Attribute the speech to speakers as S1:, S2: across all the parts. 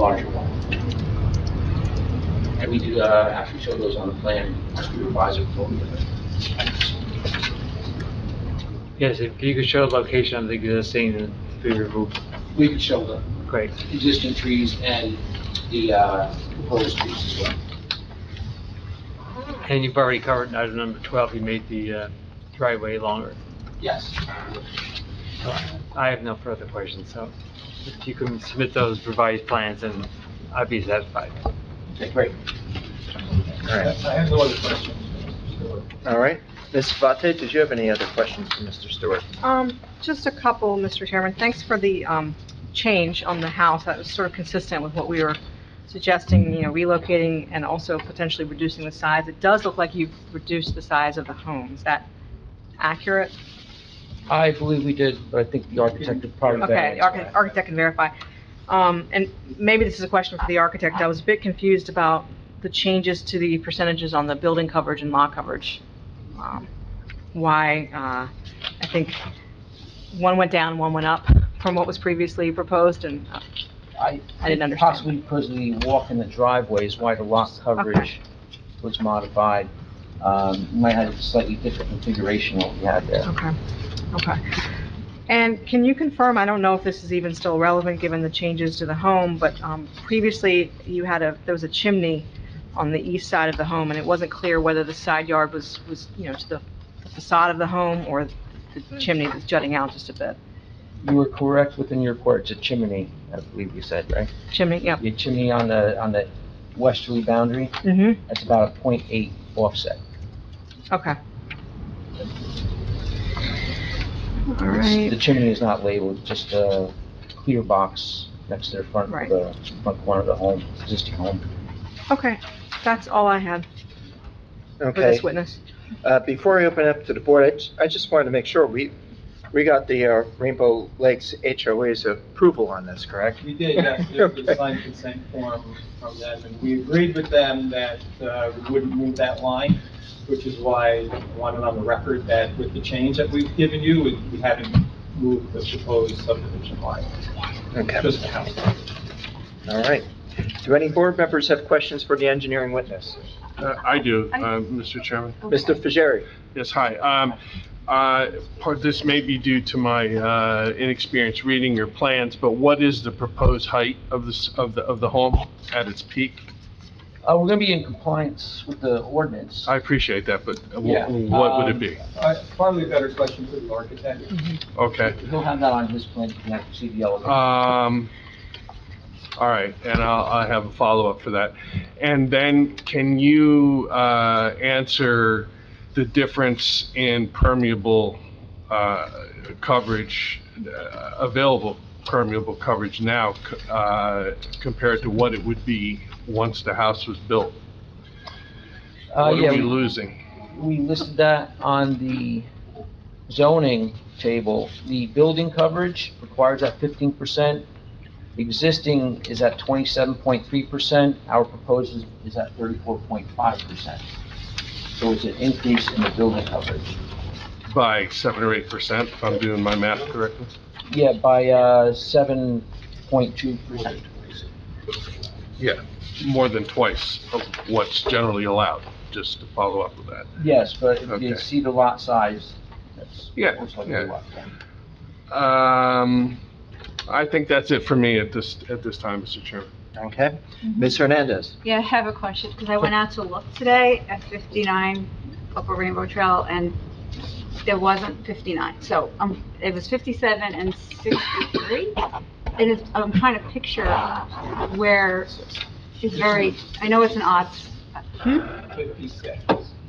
S1: larger one. And we do, uh, actually show those on the plan, as we revise it for
S2: Yes, if you could show the location of the existing tree removal,
S1: We could show the
S2: great.
S1: existing trees and the, uh, proposed trees as well.
S2: And you've already covered in item number 12, you made the uh, driveway longer.
S1: Yes.
S2: So I have no further questions, so if you can submit those revised plans, and I'd be satisfied.
S1: Okay, great.
S3: All right.
S4: I have no other questions.
S3: All right. Ms. Vate, did you have any other questions for Mr. Stewart?
S5: Um, just a couple, Mr. Chairman. Thanks for the, um, change on the house. That was sort of consistent with what we were suggesting, you know, relocating and also potentially reducing the size. It does look like you've reduced the size of the home. Is that accurate?
S6: I believe we did, but I think the architect did part of that.
S5: Okay, the archi- architect can verify. Um, and maybe this is a question for the architect. I was a bit confused about the changes to the percentages on the building coverage and lot coverage. Um, Why, uh, I think one went down, one went up from what was previously proposed and, uh,
S6: I
S5: I didn't understand.
S6: Possibly because of the walk in the driveway is why the lot coverage was modified. Um, Might have a slightly different configuration what we had there.
S5: okay, okay. And can you confirm, I don't know if this is even still relevant given the changes to the home, but, um, previously you had a, there was a chimney on the east side of the home and it wasn't clear whether the side yard was, was, you know, to the facade of the home or the chimney was jutting out just a bit.
S6: You were correct within your report, it's a chimney, I believe you said, right?
S5: Chimney, yep.
S6: Your chimney on the, on the westerly boundary,
S5: hmm
S6: that's about a .8 offset.
S5: okay. All
S6: It's- The
S5: right,
S6: chimney is not labeled, just a clear box next to the front,
S5: Right.
S6: the front corner of the home, existing home.
S5: okay. That's all I had for
S3: Okay.
S5: this witness.
S3: Uh, Before I open up to the board, I ju- I just wanted to make sure we, we got the uh, Rainbow Lakes HOA's approval on this, correct?
S4: We did, yes, there's a signed consent form from them, and we agreed with them that uh, we wouldn't move that line, which is why I wanted on the record that with the change that we've given you, we- we haven't moved the proposed subdivision line,
S3: Okay,
S4: just the house. line.
S3: all right. Do any board members have questions for the engineering witness?
S7: Uh, I do, uh, Mr. Chairman.
S3: Mr. Fajeri?
S7: Yes, hi. Um, uh, Part, this may be due to my uh, inexperience reading your plans, but what is the proposed height of this, of the, of the home at its peak?
S6: Uh, we're gonna be in compliance with the ordinance.
S7: I appreciate that, but wh-
S6: Yeah,
S7: what would
S6: um,
S7: it be?
S4: Uh, Probably a better question for the architect.
S7: Okay.
S6: He'll have that on his plan to connect to see the elevator.
S7: Um, all right, and I'll, I have a follow-up for that. And then can you, uh, answer the difference in permeable, uh, coverage, uh, available permeable coverage now, c- uh, compared to what it would be once the house was built?
S6: Uh,
S7: What are
S6: yeah,
S7: we
S6: we-
S7: losing?
S6: we listed that on the zoning table. The building coverage requires at fifteen percent. Existing is at twenty-seven point three percent. Our proposed is, is at thirty-four point five percent. So it's an increase in the building coverage.
S7: By seven or eight percent, if I'm doing my math correctly?
S6: Yeah, by, uh, seven point two percent.
S7: Yeah, more than twice of what's generally allowed, just to follow up with that.
S6: Yes, but if
S7: Okay.
S6: you see the lot size, that's.
S7: Yeah,
S6: most likely
S7: yeah.
S6: what, yeah.
S7: Um, I think that's it for me at this, at this time, Mr. Chairman.
S3: Okay. Ms. Hernandez?
S8: Yeah, I have a question, because I went out to look today at 59 Upper Rainbow Trail, and there wasn't 59. So, um, it was 57 and 63. And it's, I'm trying to picture where it's very, I know it's an odd s-
S4: 56.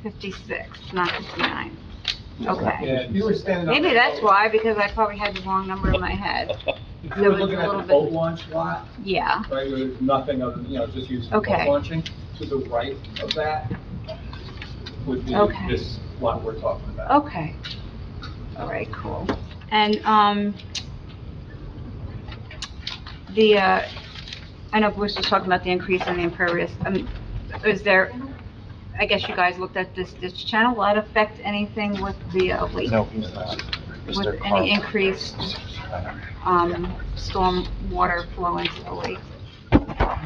S8: 56, not 59. Okay.
S4: Yeah, if you were standing on.
S8: Maybe that's why, because I probably had the wrong number in my head.
S4: If you were
S8: There was a
S4: looking at
S8: little
S4: the
S8: bit-
S4: boat launch lot,
S8: Yeah,
S4: right, where there's nothing other than, you know, just using boat
S8: Okay.
S4: launching, to the right of that would be
S8: Okay.
S4: this lot we're talking about.
S8: okay. All right, cool. And, um, the, uh, I know Bruce was talking about the increase in the impervious, I mean, is there, I guess you guys looked at this ditch channel, will that affect anything with the, uh, lake?
S3: No, he's not.
S8: With any increased, um, storm water flow into the lake?